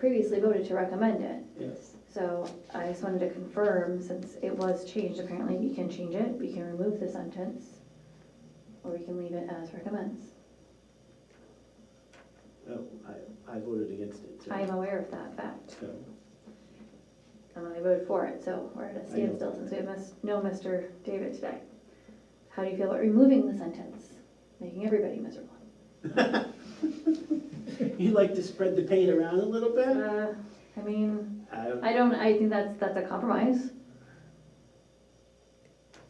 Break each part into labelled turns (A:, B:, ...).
A: previously voted to recommend it.
B: Yes.
A: So I just wanted to confirm, since it was changed, apparently we can change it, we can remove the sentence, or we can leave it as recommends.
B: Oh, I, I voted against it. so-
A: I am aware of that fact,
B: so,
A: and I voted for it, so we're at a standstill since we have mis- no Mr. David today. How do you feel about removing the sentence, making everybody miserable?
B: You like to spread the pain around a little bit? Uh,
A: Uh, I mean,
B: I-
A: I don't, I think that's, that's a compromise.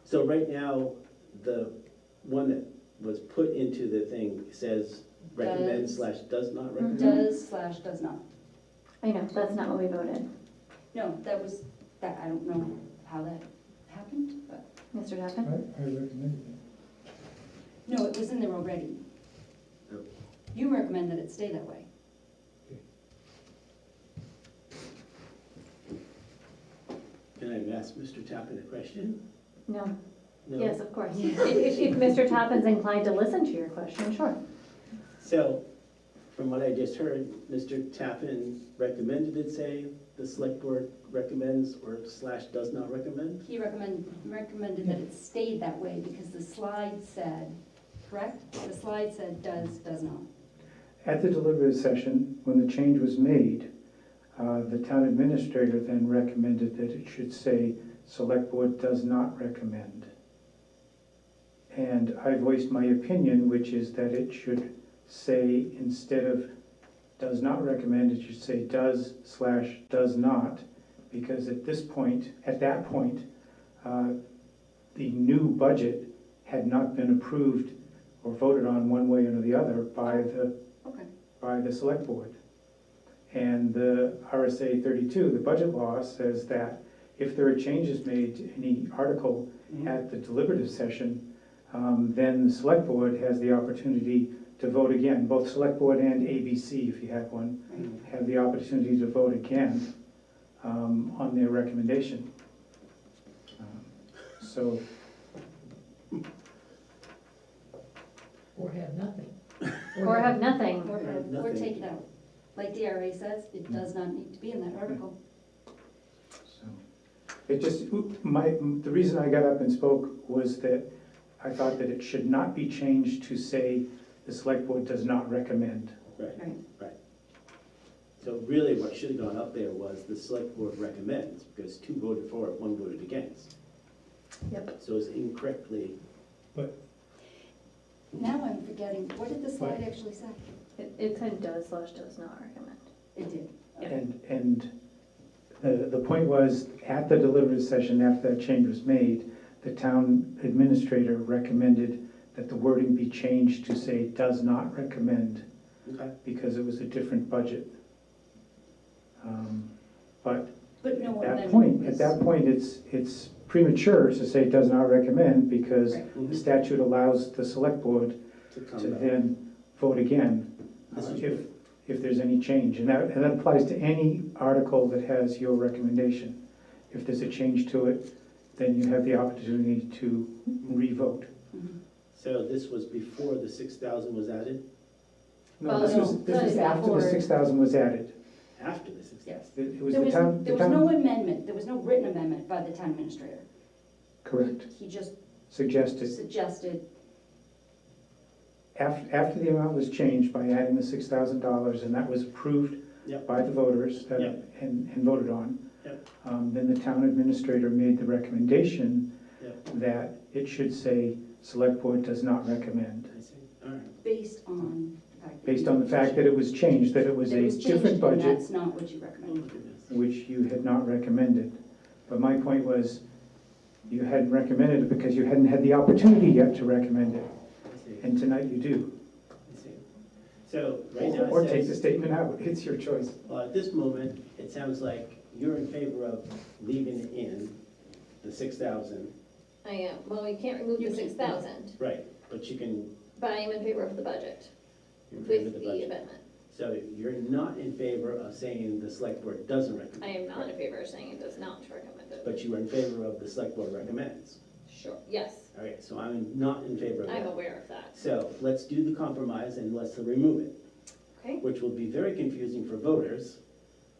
B: So right now, the one that was put into the thing says recommend
C: Does.
B: slash does
A: Mm-hmm.
B: not recommend?
C: Does slash does not.
A: I know, that's not what we voted.
C: No, that was, that, I don't know how that happened, but,
A: Mr.
D: I, I
A: Tappan?
D: recommended it.
C: no, it was in there already.
B: Oh.
C: You recommend that it stay that way.
B: Can I ask Mr. Tappan a question?
A: No.
B: No?
A: Yes, of course. If, if- if Mr. Tappin's inclined to listen to your question, sure.
B: So, from what I just heard, Mr. Tappan recommended it say, the select board recommends or slash does not recommend?
C: He recommend, recommended that it stayed that way because the slide said, correct? The slide said does, does not.
E: At the deliberative session, when the change was made, uh, the town administrator then recommended that it should say, "Select Board does not recommend." And I voiced my opinion, which is that it should say, instead of "does not recommend," it should say "does slash does not," because at this point, at that point, uh, the new budget had not been approved or voted on one way or the other by the
C: Okay.
E: by the select board. And the RSA thirty-two, the budget law, says that if there are changes made to any article at the deliberative session, um, then the select board has the opportunity to vote again. Both select board and ABC, if you had one,
B: Mm.
E: have the opportunity to vote again um, on their recommendation. Um, So
F: Or have nothing.
A: Or have nothing.
C: Or,
B: Right,
C: or
B: nothing.
C: take it out. Like DRA says, it does not need to be in that article.
E: So, It just, my, the reason I got up and spoke was that I thought that it should not be changed to say the select board does not recommend.
B: Right.
C: Right.
B: So really, what should have gone up there was the select board recommends, because two voted for it, one voted against.
A: Yep.
B: So it's incorrectly,
C: Now I'm forgetting, what did the slide actually say?
A: It, it said does slash does not recommend.
C: It did.
E: And, and the, the point was, at the deliberative session, after that change was made, the town administrator recommended that the wording be changed to say does not recommend.
B: okay,
E: because it was a different budget. Um, But
C: But no
E: at
C: one
E: that
C: then
E: point,
C: was-
E: at that point, it's, it's premature to say does not recommend because
C: Right.
E: the statute allows the select board
B: to
E: to
B: come back.
E: then vote again
B: This
E: uh,
B: is-
E: if, if there's any change. And that, and that applies to any article that has your recommendation. If there's a change to it, then you have the opportunity to revote.
C: Mhm.
B: So this was before the six thousand was added,
E: No,
A: Well,
E: this was,
A: no,
E: this was
A: no,
E: after
A: before.
E: the six thousand was added.
B: after the six thousand?
C: Yes.
E: It it was
C: There
E: the
C: was,
E: town,
C: there
E: the
C: was
E: town,
C: no amendment, there was no written amendment by the town administrator.
E: correct,
C: He just
E: suggested.
C: suggested,
E: After, after the amount was changed by adding the six thousand dollars, and that was approved
B: Yep,
E: by the voters that,
B: Yep.
E: and, and voted on.
B: Yep.
E: Um, then the town administrator made the recommendation
B: Yep.
E: that it should say, select board does not recommend.
B: I see, all right.
C: based on the fact. that
E: Based
C: you-
E: on the fact that it was changed, that it was
C: that it
E: a
C: was changed
E: different
C: and
E: budget,
C: That's not what you
B: Oh,
C: recommend.
B: look at this.
E: which you had not recommended. But my point was, you hadn't recommended it because you hadn't had the opportunity yet to recommend it,
B: I see,
E: and tonight you do.
B: I see. So right now
E: Or
B: it
E: take the
B: says,
E: statement out, it's your choice.
B: well, at this moment, it sounds like you're in favor of leaving in the six thousand,
G: I am, well, we can't remove
C: You
G: the
C: can't.
G: six thousand,
B: right, but you can,
G: but I am in favor of the budget
B: you're in favor
G: with
B: of the
G: the
B: budget.
G: amendment.
B: So you're not in favor of saying the select board doesn't recommend?
G: I am not in favor of saying it does not recommend it.
B: But you are in favor of the select board recommends.
G: Sure, yes,
B: All right, so I'm not in favor of
G: I'm
B: that.
G: aware of that.
B: So let's do the compromise and let's remove it,
G: Okay,
B: which will be very confusing for voters